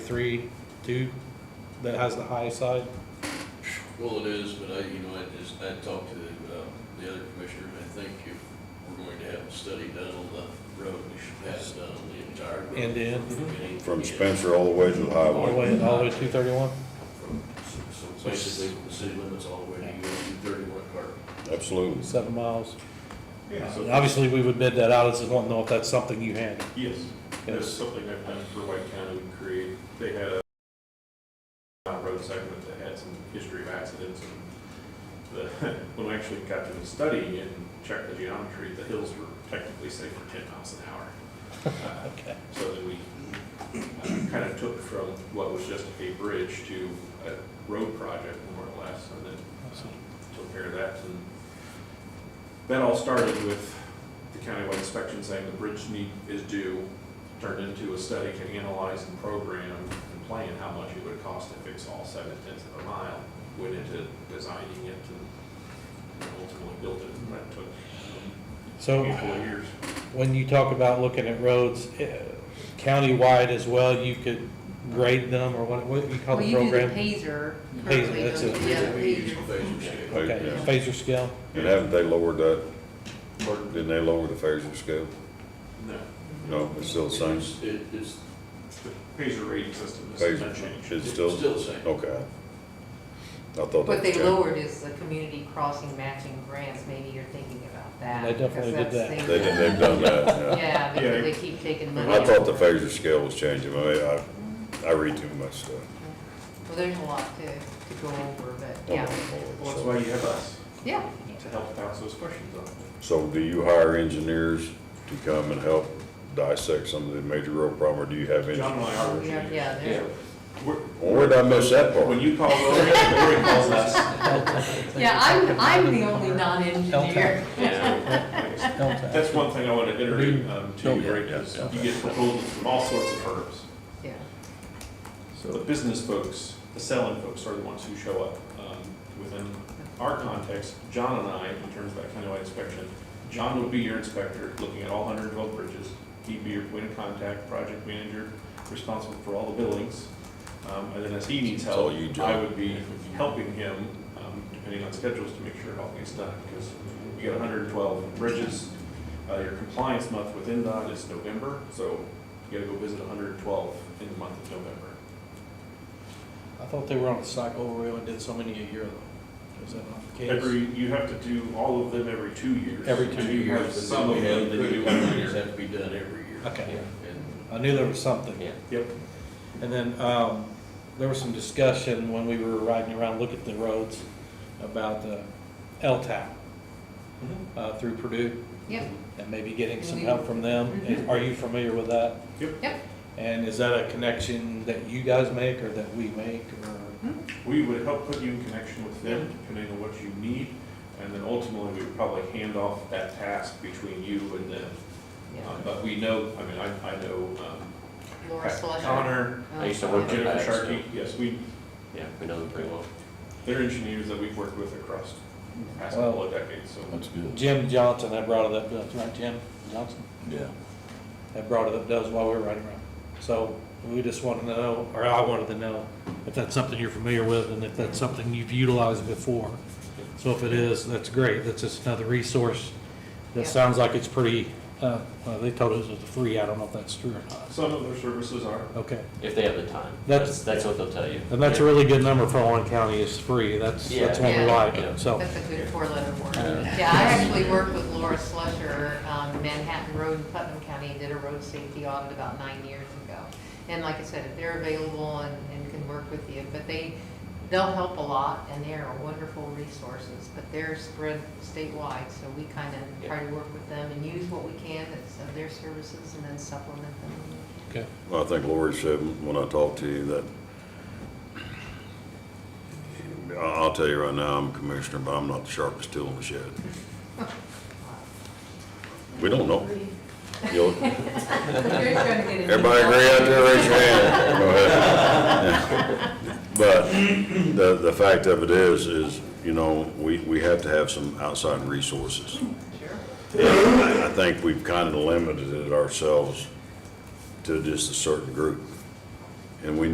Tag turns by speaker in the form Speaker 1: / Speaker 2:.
Speaker 1: three, two, that has the high side?
Speaker 2: Well, it is, but I, you know, I just, I talked to uh, the other commissioner, and I think if we're going to have a study done on the road, we should have it done on the entire road.
Speaker 1: End to end?
Speaker 2: Beginning to
Speaker 3: Mhm. From
Speaker 2: end.
Speaker 3: Spencer all the way to the
Speaker 1: All the
Speaker 3: highway.
Speaker 1: way, all the way to two thirty-one?
Speaker 2: From- So so basically, from the city limits all the way to U.S. 31 Carter.
Speaker 3: Absolutely.
Speaker 1: Seven miles.
Speaker 4: Yeah,
Speaker 1: Uh,
Speaker 4: so,
Speaker 1: Obviously, we would bid that out, I just want to know if that's something you handle.
Speaker 4: yes, that's
Speaker 1: Yes.
Speaker 4: something I've done for White County and Creed. They had a uh, road segment that had some history of accidents and the, when we actually got to the study and checked the geometry, the hills were technically safe for ten miles an hour. Uh,
Speaker 1: Okay.
Speaker 4: So then we uh, kind of took from what was just a bridge to a road project more or less, and then uh, took care of that. And that all started with the countywide inspection saying the bridge need, is due, turned into a study to analyze and program and plan how much it would cost to fix all seven tenths of a mile, went into designing it and ultimately built it, and that took
Speaker 1: So,
Speaker 4: a couple of years.
Speaker 1: when you talk about looking at roads, eh, countywide as well, you could grade them, or what, what do you call
Speaker 5: Well,
Speaker 1: the
Speaker 5: you do the
Speaker 1: program?
Speaker 5: Pacer.
Speaker 1: Pacer,
Speaker 5: currently,
Speaker 1: that's
Speaker 5: don't
Speaker 1: it.
Speaker 5: you? Yeah, the
Speaker 2: We use
Speaker 5: pager.
Speaker 2: phasing scale.
Speaker 1: Okay,
Speaker 3: Yeah.
Speaker 1: phaser scale,
Speaker 3: And haven't they lowered that?
Speaker 4: Pardon?
Speaker 3: Didn't they lower the phaser scale?
Speaker 4: No,
Speaker 3: No, it's still the same?
Speaker 2: It's- It, it's
Speaker 4: the Pacer rating system is
Speaker 3: Phaser,
Speaker 4: unchanged.
Speaker 3: it's
Speaker 2: it's
Speaker 3: still,
Speaker 2: still the same.
Speaker 3: okay. I thought
Speaker 5: What
Speaker 3: that
Speaker 5: they
Speaker 3: changed.
Speaker 5: lowered is the community crossing matching grants, maybe you're thinking about that.
Speaker 1: They definitely
Speaker 5: because
Speaker 1: did
Speaker 5: that's
Speaker 3: They did, they've done
Speaker 5: the-
Speaker 3: that, yeah.
Speaker 5: Yeah,
Speaker 4: Yeah.
Speaker 5: because they keep taking money.
Speaker 3: I thought the
Speaker 5: out.
Speaker 3: phaser scale was changing, I, mean, I, I read too much stuff.
Speaker 5: Well, there's a lot to, to go over, but
Speaker 3: Oh,
Speaker 5: yeah.
Speaker 4: Well, that's why you have us,
Speaker 5: Yeah,
Speaker 4: to help bounce those questions off.
Speaker 3: So do you hire engineers to come and help dissect some of the major road problem, or do you have
Speaker 4: John
Speaker 3: engineers?
Speaker 4: and I are.
Speaker 5: We are- yeah, they're-
Speaker 4: We're-
Speaker 3: Where did I miss that
Speaker 4: When
Speaker 3: part?
Speaker 4: you call Lori, Lori calls us.
Speaker 5: yeah, I'm, I'm the only non-engineer.
Speaker 4: That's
Speaker 1: don't tell.
Speaker 4: one thing I want to iterate um, to you, right, is
Speaker 3: Oh, Yeah, yeah.
Speaker 4: you get proposals from all sorts of firms.
Speaker 5: Yeah,
Speaker 4: So the business folks, the selling folks are the ones who show up. Um, Within our context, John and I, in terms of that countywide inspection, John would be your inspector, looking at all hundred and twelve bridges. He'd be your point of contact, project manager, responsible for all the billings. Um, and then as he needs
Speaker 3: It's
Speaker 4: help,
Speaker 3: all you, John.
Speaker 4: I would be helping him, um, depending on schedules, to make sure it all gets done. Because you got hundred and twelve bridges, uh, your compliance month with NDOT is November, so you gotta go visit hundred and twelve in the month of November.
Speaker 1: I thought they were on a cycle where we only did so many a year though. Is that not the case?
Speaker 4: Every, you have to do all of them every two years.
Speaker 1: Every two
Speaker 4: And
Speaker 2: Two
Speaker 4: you have
Speaker 2: years, but then
Speaker 4: Some of
Speaker 2: we
Speaker 4: them
Speaker 2: have,
Speaker 4: that you do
Speaker 2: critical
Speaker 4: every
Speaker 2: ones
Speaker 4: year.
Speaker 2: have to be done every year.
Speaker 1: Okay,
Speaker 2: And
Speaker 1: I knew there was something.
Speaker 6: Yeah.
Speaker 4: Yep,
Speaker 1: And then, um, there was some discussion when we were riding around, looking at the roads, about the LTAP, uh, through Purdue,
Speaker 5: yep,
Speaker 1: and maybe getting some help from them.
Speaker 5: Mhm.
Speaker 1: Are you familiar with that?
Speaker 5: yep.
Speaker 1: And is that a connection that you guys make or that we make or?
Speaker 4: we would help put you in connection with them depending on what you need. And then ultimately, we would probably hand off that task between you and them.
Speaker 5: yeah.
Speaker 4: Um, But we know, I mean, I, I know, um,
Speaker 5: Laura
Speaker 4: Pat
Speaker 5: Slusher.
Speaker 4: Connor,
Speaker 5: Oh,
Speaker 6: I used to
Speaker 5: yeah.
Speaker 6: work there.
Speaker 4: Jennifer
Speaker 6: Back, so-
Speaker 4: Sharkey, yes, we,
Speaker 6: Yeah, we know them pretty well.
Speaker 4: they're engineers that we've worked with across the past couple of decades, so.
Speaker 3: That's good.
Speaker 1: Jim Johnson, I brought it up, that's right, Jim Johnson?
Speaker 3: Yeah.
Speaker 1: I brought it up does while we were riding around. So we just wanted to know, or I wanted to know, if that's something you're familiar with and if that's something you've utilized before. So if it is, that's great. That's just another resource.
Speaker 5: Yeah.
Speaker 1: That sounds like it's pretty, uh, well, they told us it's free. I don't know if that's true or not.
Speaker 4: Some of their services are,
Speaker 1: Okay.
Speaker 6: If they have the time.
Speaker 1: That's-
Speaker 6: That's, that's what they'll tell you.
Speaker 1: And that's a really good number for Owen County is free. That's, that's one we
Speaker 5: Yeah.
Speaker 1: like,
Speaker 3: Oh.
Speaker 1: so.
Speaker 5: That's a good four-letter word.
Speaker 3: Uh,
Speaker 1: Yeah.
Speaker 5: Yeah, I actually worked with Laura Slusher, um, Manhattan Road in Putnam County, did a road safety audit about nine years ago. And like I said, if they're available and, and can work with you, but they, they'll help a lot, and they're wonderful resources, but they're spread statewide, so we kind of
Speaker 6: Yeah.
Speaker 5: try to work with them and use what we can that's of their services and then supplement them.
Speaker 1: Okay.
Speaker 3: Well, I think Lori said when I talked to you that, I- I'll tell you right now, I'm a commissioner, but I'm not the sharpest tool in the shed. We don't know. You'll- Everybody agree out there, raise your hand. Go ahead. But the, the fact of it is, is, you know, we, we have to have some outside resources.
Speaker 5: Sure.
Speaker 3: And I I think we've kind of limited it ourselves to just a certain group. And we